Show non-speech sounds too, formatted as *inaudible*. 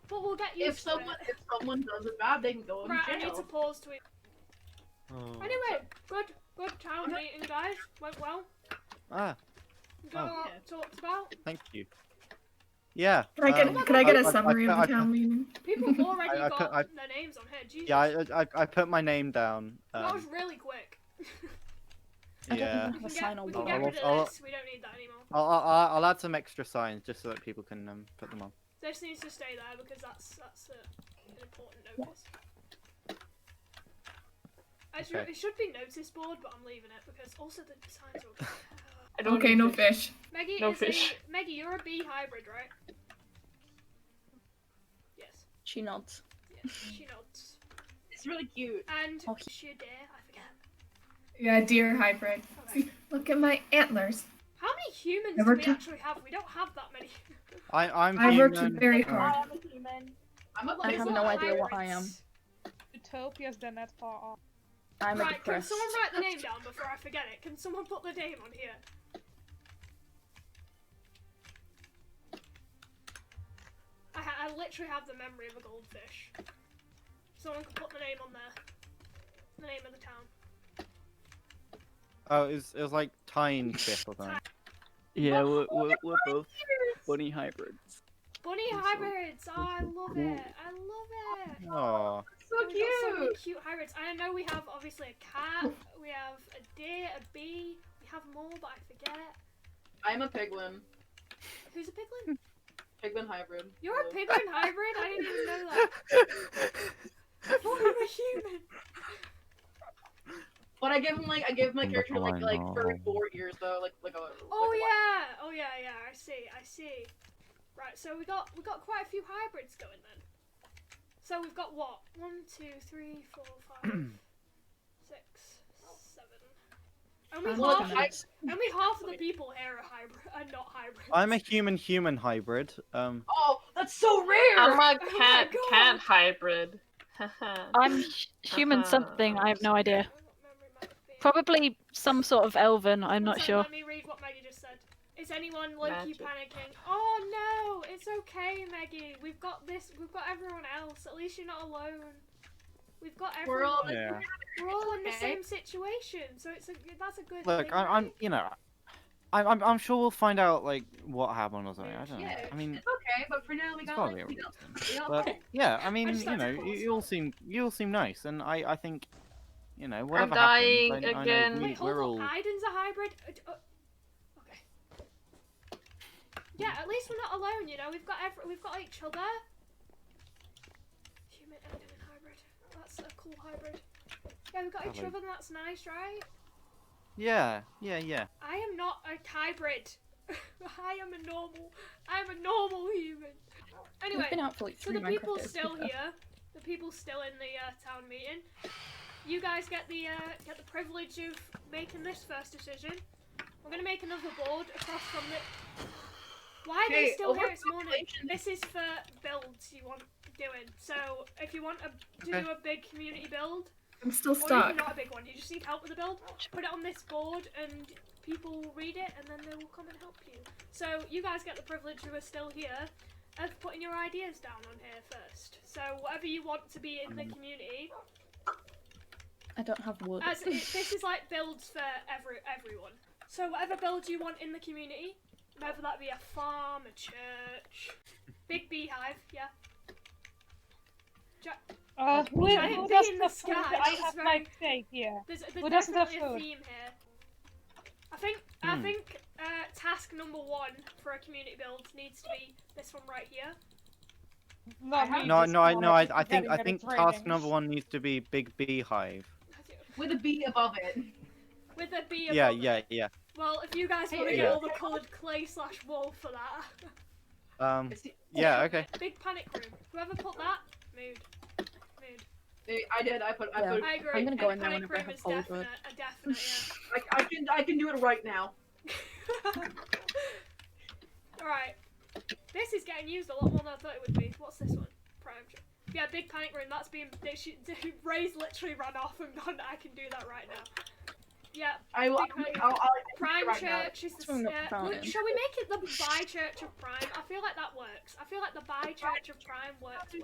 But we'll get used If to someone it. if someone does it bad, they can go in Right, I need jail. to pause to eat. Oh. Anyway, good, good town meeting, guys. Went well. Ah, We got Oh. a lot talked about. thank you. Yeah. Can I get um, can I get I- a I- I summary put- I of the town meeting? People *laughs* have already I- I got put- I- their names on here. Jesus. Yeah, I, I, I put my name down. that was Um, really quick. I don't yeah. We even have a can sign get, we on can wall. get I'll- rid I'll- of this. We don't need that anymore. I'll, I'll, I'll add some extra signs just so that people can um, put them on. This needs to stay there because that's that's a, an important notice. I should, Okay. It should be notice board, but I'm leaving it because also the signs *laughs* are. I don't Okay, need no to- fish. Maggie No is fish. a Maggie. You're a bee hybrid, right? Yes. She nods. Yes. She nods. It's really cute. And Okay. she a dare. I forget. Yeah, deer hybrid. Okay. Look at my antlers. How many humans Never do we ca- actually have? We don't have that many. *laughs* I, I'm I worked human. very um, hard. am a human. I'm a I like, have what no am idea what I Hybrids. Utopia's then not far off. I'm a Right, can depressed. someone write the name down before I forget it? Can someone put the name on here? I, ha- I literally have the memory of a goldfish. Someone can put the name on there. The name of the town. Oh, it was, it was like Tyne Fifth or *laughs* something. Yeah, we're, we're, we're both bunny hybrids. Bunny Awesome. hybrids! Oh, I love Cool. it! I love it! Oh, So We've got so many cute. cute hybrids. I know we have obviously a cat, we have a deer, a bee, we have more, but I forget. I'm a piglin. Who's a piglin? Piglin hybrid. You're a Hello. piglin hybrid? I didn't even know that. *laughs* I thought you were human. But I give him like I give my character Oh, I like like know. furry four ears though, like like a. Oh like a- yeah, oh yeah, yeah. I see, I see. Right, so we got we got quite a few hybrids going then. So we've got what? One, two, three, four, five, six, seven. Only I'm Well, looking half, at I- this. only half of the people here are hybrid, are not hybrids. I'm a human-human hybrid. Um, Oh, that's so rare. *laughs* I'm a Oh my cat God. cat hybrid. I'm hu- human something. I have no idea. Probably some sort of elven. I'm not sure. Let me read what Maggie just said. Is anyone like you Magic. panicking? Oh no, it's okay, Maggie. We've got this. We've got everyone else. At least you're not alone. We've got We're everyone. all yeah. We're all in the Okay. same situation, so it's a that's a good Look, thing. I, I'm, right? you know, I'm, I'm, I'm sure we'll find out like what happened or something. I don't know. Yeah, I mean, it's okay, but for now we it's got probably like a we reason. got, we got But friends. yeah, I mean, just you like to know, you, pause. you all seem, you all seem nice, and I, I think, you know, whatever dying happens, I, I again. know we, Wait, hold we're on. all. Aiden's a hybrid. Uh, uh, okay. Yeah, at least we're not alone. You know, we've got every, we've got each other. Human Aiden and hybrid. That's a cool hybrid. Yeah, we've got each Hello. other. and That's nice, right? Yeah, yeah, yeah. I am not a hybrid. *laughs* I am a normal. I'm a normal human. Anyway. We've been out for like So three the people's Minecraft days, to be still fair. here. The people's still in the uh, town meeting. You guys get the uh, get the privilege of making this first decision. We're gonna make another board across from the. Why are they Hey, still here? It's morning. overpopulation. This is for builds you want doing. So if you want a, to Okay. do a big community build, I'm still or even stuck. not a big one, you just need help with a build. Put it on this board, and people will read it, and then they will come and help you. So you guys get the privilege who are still here of putting your ideas down on here first. So whatever you want to be in the community, I don't have wood. as it, *laughs* this is like builds for every everyone. So whatever build you want in the community, whether that be a farm, a church, big beehive, yeah. Uh, who, Giant who bee does in the the food? sky, I this is have very- my say here. There's, there's Who doesn't have definitely a food? theme here. I think I Hmm. think uh, task number one for a community build needs to be this one right here. I Not have- me, No, this no, I, one, no, I, keep I think, forgetting I that think it's task raining. number one needs to be big beehive. with a bee above *laughs* it. With a B. Yeah, above it. yeah, yeah. Well, if you guys want to Hey, get yeah. all the coloured clay slash wall for that, Um, It's the- yeah, okay. *laughs* big panic room. Whoever put that, mood, mood. they- I did. I put. I Yeah. put. I agree. I'm gonna go big in there panic whenever I room have is cold definite, a definite. I, I can. I can do it right now. *laughs* Yeah. all right. This is getting used a lot more than I thought it would be. What's this one? Prime. Trip. Yeah, big *laughs* panic room. That's been. They should, Ray's literally run off and gone. I can do that right now. Yeah, I will. I'll, I'll, Prime Right now. Church is It's the. from the Uh, fountain. look, shall we make it the Bi Church of Prime? I feel like that works. I feel like the Bi Church of Prime works